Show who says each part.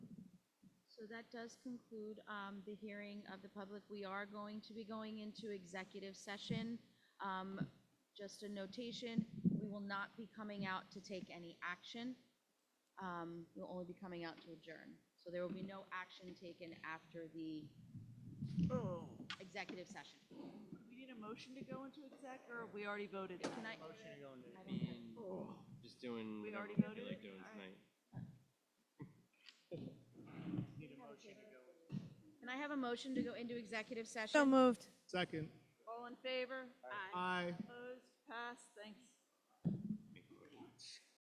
Speaker 1: So that does conclude um, the hearing of the public. We are going to be going into executive session. Um, Just a notation, we will not be coming out to take any action. Um, We'll only be coming out to adjourn. So there will be no action taken after the
Speaker 2: Oh,
Speaker 1: executive session.
Speaker 2: we need a motion to go into exec, or we already voted?
Speaker 1: Can I?
Speaker 3: Motion to go into
Speaker 1: I don't have-
Speaker 3: being,
Speaker 2: Oh.
Speaker 3: just doing
Speaker 2: We
Speaker 3: whatever
Speaker 2: already
Speaker 3: we
Speaker 2: voted?
Speaker 3: like doing
Speaker 2: All
Speaker 3: tonight.
Speaker 2: right.
Speaker 3: Need a motion to go.
Speaker 1: Can I have a motion to go into executive session?
Speaker 4: So moved.
Speaker 5: Second.
Speaker 2: All in favor? Aye.
Speaker 5: Aye.
Speaker 2: Opposed? Passed? Thanks.